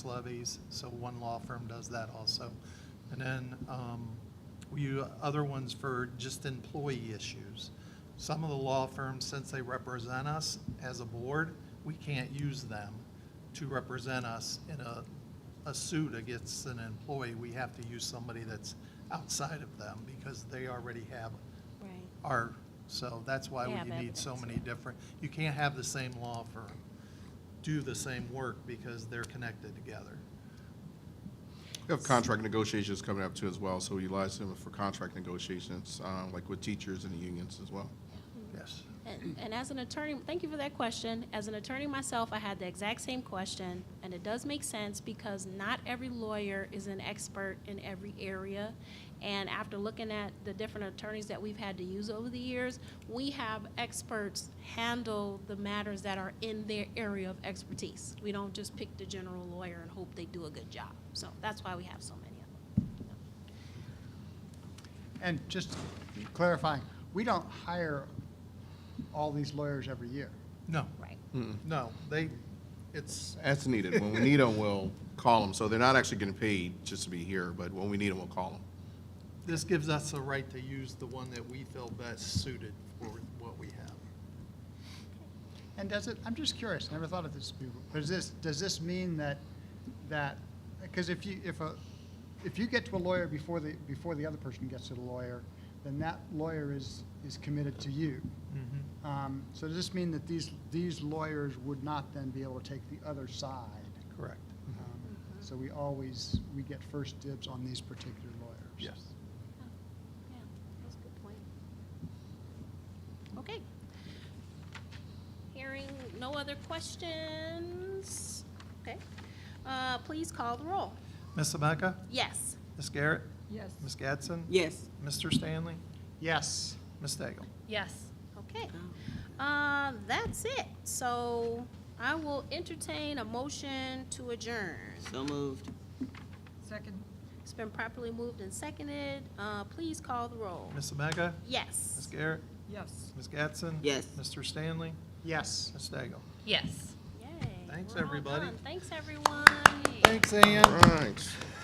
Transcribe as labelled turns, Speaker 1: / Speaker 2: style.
Speaker 1: levies, so one law firm does that also. And then um, we do other ones for just employee issues. Some of the law firms, since they represent us as a board, we can't use them to represent us in a, a suit against an employee. We have to use somebody that's outside of them because they already have
Speaker 2: Right.
Speaker 1: our, so that's why
Speaker 2: They have
Speaker 1: you need so
Speaker 2: evidence,
Speaker 1: many
Speaker 2: yeah.
Speaker 1: different, you can't have the same law firm do the same work because they're connected together.
Speaker 3: We have contract negotiations coming up too as well, so we utilize them for contract negotiations, um, like with teachers and the unions as well.
Speaker 1: Yes.
Speaker 2: And, and as an attorney, thank you for that question. As an attorney myself, I had the exact same question, and it does make sense because not every lawyer is an expert in every area. And after looking at the different attorneys that we've had to use over the years, we have experts handle the matters that are in their area of expertise. We don't just pick the general lawyer and hope they do a good job. So that's why we have so many of them.
Speaker 4: And just clarifying, we don't hire all these lawyers every year.
Speaker 1: No,
Speaker 2: Right.
Speaker 1: no, they, it's,
Speaker 3: As needed, when we need them, we'll call them, so they're not actually getting paid just to be here, but when we need them, we'll call them.
Speaker 1: this gives us the right to use the one that we feel best suited for what we have.
Speaker 4: And does it, I'm just curious, never thought of this before. Does this, does this mean that, that, because if you, if a, if you get to a lawyer before the, before the other person gets to the lawyer, then that lawyer is, is committed to you.
Speaker 1: Mm-hmm.
Speaker 4: Um, So does this mean that these, these lawyers would not then be able to take the other side?
Speaker 1: Correct. Uh-huh.
Speaker 4: Um, So we always, we get first dibs on these particular lawyers?
Speaker 1: Yes.
Speaker 2: Yeah, that's a good point. Okay. Hearing no other questions, okay. Uh, Please call the roll.
Speaker 1: Ms. Ameca?
Speaker 2: Yes.
Speaker 1: Ms. Garrett?
Speaker 5: Yes.
Speaker 1: Ms. Gadsden?
Speaker 5: Yes.
Speaker 1: Mr. Stanley?
Speaker 4: Yes.
Speaker 1: Ms. Daigle?
Speaker 2: Yes. Okay. Uh, That's it. So I will entertain a motion to adjourn.
Speaker 6: So moved.
Speaker 5: Second.
Speaker 2: It's been properly moved and seconded. Uh, Please call the roll.
Speaker 1: Ms. Ameca? Ms.
Speaker 2: Yes.
Speaker 1: Garrett?
Speaker 5: Yes.
Speaker 1: Ms. Gadsden?
Speaker 6: Yes.
Speaker 1: Mr. Stanley?
Speaker 4: Yes.
Speaker 1: Ms. Daigle?
Speaker 2: Yay.
Speaker 1: Thanks,
Speaker 2: we're all
Speaker 1: everybody.
Speaker 2: done. Thanks, everyone.
Speaker 1: Thanks, Ann.
Speaker 3: Right.